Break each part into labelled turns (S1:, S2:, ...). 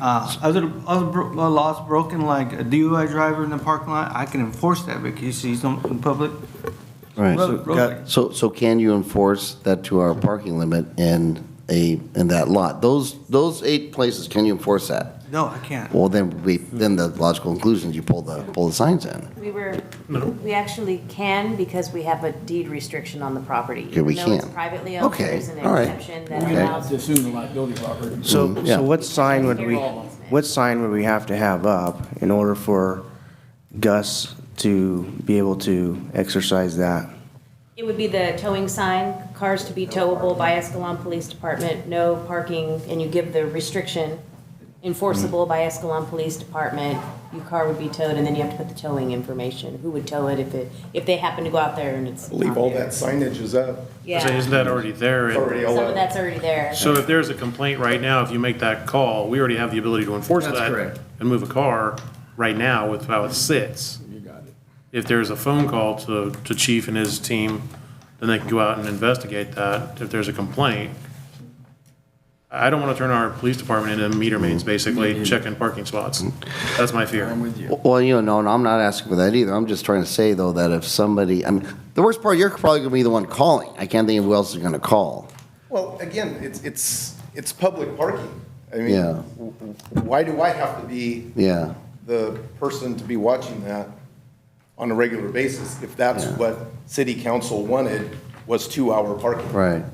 S1: Uh, other, other bro- uh, laws broken, like a DUI driver in the parking lot, I can enforce that because he's on, in public.
S2: Right, so
S1: road- road
S2: got-
S1: lane.
S2: So, so can you enforce that two hour parking limit in a, in that lot? Those, those eight places, can you enforce that?
S1: No, I can't.
S2: Well, then we, then the logical conclusion is you pull the, pull the signs in.
S3: We were, we actually can because we have a deed restriction on the property.
S2: Okay, we
S3: Even though
S2: can.
S3: it's privately owned,
S2: Okay,
S3: there's an
S2: all right,
S3: exemption that
S2: okay.
S3: allows.
S4: assume the liability of operator.
S5: So,
S2: yeah.
S5: so what sign would we,
S3: Easement.
S5: what sign would we have to have up in order for Gus to be able to exercise that?
S3: It would be the towing sign, cars to be towable by Escalon Police Department, no parking, and you give the restriction enforceable by Escalon Police Department, your car would be towed, and then you have to put the towing information, who would tow it if it, if they happen to go out there and it's
S6: believe
S3: not
S6: all
S3: there.
S6: that signage is up,
S3: Yeah,
S7: So Isn't
S3: some
S7: that already there?
S6: already all
S3: of
S6: up.
S3: that's already there.
S7: So if there's a complaint right now, if you make that call, we already have the ability to enforce that. And move a car right now with how it sits. You got
S4: it.
S7: If there's a phone call to, to chief and his team, then they can go out and investigate that if there's a complaint. I don't want to turn our police department into meter maids, basically, checking parking spots. That's my fear.
S2: Well, you know, and I'm not asking for that either. I'm just trying to say, though, that if somebody, I mean, the worst part, you're probably going to be the one calling. I can't think of who else is going to call.
S6: Well, again, it's, it's, it's public parking. I mean,
S2: Yeah.
S6: w- w- why do I have to be
S2: Yeah,
S6: the person to be watching that on a regular basis if that's what city council wanted was two-hour parking?
S2: right.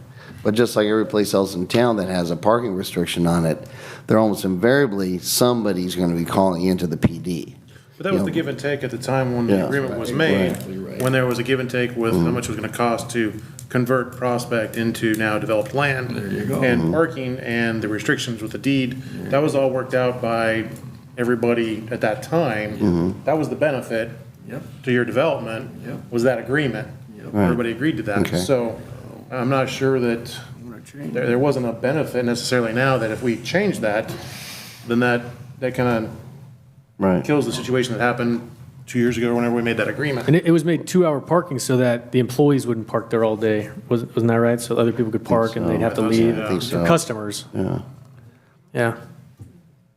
S2: But just like every place else in town that has a parking restriction on it, they're almost invariably, somebody's going to be calling into the PD.
S7: But that was the
S2: Yeah.
S7: give and take at the time when
S2: Yeah. Mm-hmm.
S7: the agreement was made, when there was a give and take with how much it was gonna cost to convert Prospect into now developed land.
S2: Mm-hmm.
S7: And parking and the restrictions with the deed, that was all worked out by everybody at that
S2: Mm-hmm.
S7: time. That was the benefit to your development, was that agreement. Everybody agreed to that.
S2: Okay.
S7: So I'm not sure that, there, there wasn't a benefit necessarily now that if we change that, then that, that kinda
S2: Right.
S7: kills the situation that happened two years ago whenever we made that agreement.
S8: And it, it was made two-hour parking so that the employees wouldn't park there all day. Was- Wasn't that right? So other people could park and they'd have to
S7: so.
S8: leave.
S7: I
S2: think so.
S8: For Customers. Yeah. Yeah.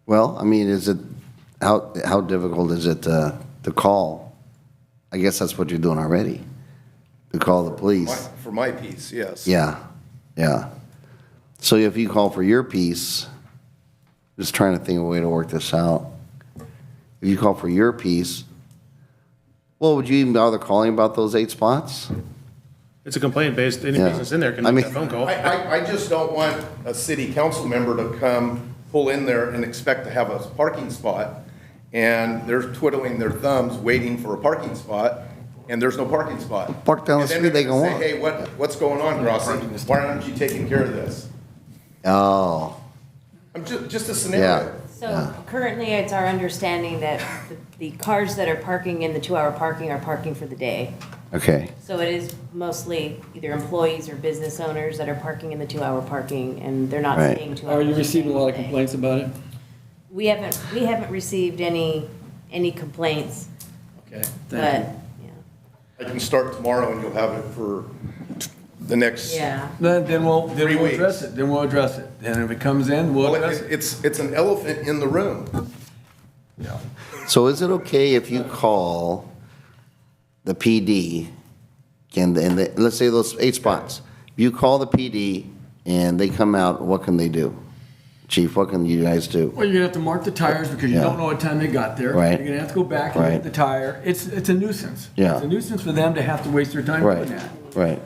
S2: Well, I mean, is it, how, how difficult is it to, to call? I guess that's what you're doing already, to call the
S6: My-
S2: police.
S6: For my piece, yes.
S2: Yeah, yeah. So if you call for your piece, just trying to think of a way to work this out. If you call for your piece, well, would you even bother calling about those eight spots?
S7: It's a complaint based, any
S2: Yeah.
S7: business in there can
S2: I
S7: make
S2: mean-
S7: that phone call.
S6: I, I, I just don't want a city council member to come pull in there and expect to have a parking spot, and they're twiddling their thumbs, waiting for a parking spot, and there's no parking spot.
S2: Park down the
S6: And then
S2: street, they
S6: they're gonna
S2: go
S6: Say, hey, what, what's going on, Grossi? Why aren't you taking care of this?
S2: Oh,
S6: I'm ju- just a
S2: yeah,
S6: scenario.
S3: So currently, it's our understanding that the the cars that are parking in the two-hour parking are parking for the day.
S2: okay,
S3: So it is mostly either employees or business owners that are parking in the two-hour parking, and they're not
S2: Right.
S3: staying two hours.
S4: Are you
S3: they're
S4: receiving
S3: staying
S4: a lot
S3: all
S4: of
S3: day.
S4: complaints about it?
S3: We haven't, we haven't received any, any complaints,
S4: Okay,
S3: but,
S4: thank
S3: yeah.
S6: I can start tomorrow and you'll have it for the next.
S3: yeah.
S4: you. Then, then we'll,
S6: Three
S4: then we'll
S6: weeks.
S4: address it, then we'll address it, and if it comes in, we'll
S6: Well,
S4: address
S6: it-
S4: it.
S6: it's, it's an elephant in the room.
S2: So is it okay if you call the PD, and, and they- let's say those eight spots, you call the PD and they come out, what can they do? Chief, what can you guys do?
S4: Well, you're gonna have to mark the tires because you
S2: Yeah.
S4: don't know what time they got there.
S2: Right.
S4: You're gonna have to go back and
S2: Right.
S4: get the tire, it's, it's a nuisance.
S2: Yeah.
S4: It's a nuisance for them to have to waste their time
S2: Right,
S4: doing that.
S2: right.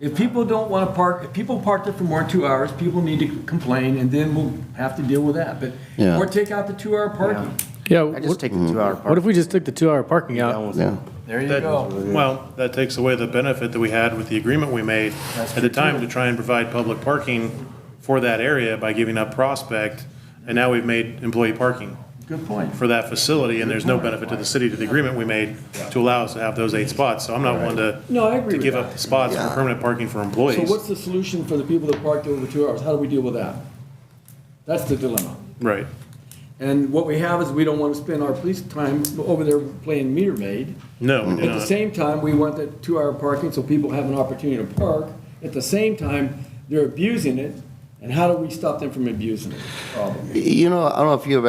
S4: If people don't want to park, if people park there for more than two hours, people need to complain, and then we'll have to deal with that, but,
S2: Yeah.
S4: or take out the two-hour parking.
S8: Yeah.
S5: I just
S8: What
S5: take the two-hour
S8: what if
S5: parking.
S8: we just took the two-hour parking out?
S2: Yeah,
S4: There you
S7: That-
S4: go.
S7: Well, that takes away the benefit that we had with the agreement we made at the time to try and provide public parking for that area by giving up Prospect. And now we've made employee parking
S4: Good point.
S7: for that facility and there's no benefit to the city to the agreement we made to allow us to have those eight spots. So I'm not one to.
S4: No, I agree
S7: To
S4: with
S7: give
S4: that.
S7: up the spots for
S2: Yeah.
S7: permanent parking for employees.
S4: So what's the solution for the people that parked over two hours? How do we deal with that? That's the dilemma.
S7: Right.
S4: And what we have is we don't want to spend our police time over there playing meter maid.
S7: No, we do
S4: At the
S7: not.
S4: same time, we want that two-hour parking so people have an opportunity to park. At the same time, they're abusing it,
S9: And how do we stop them from abusing it? Problem.
S4: You know, I don't know if you've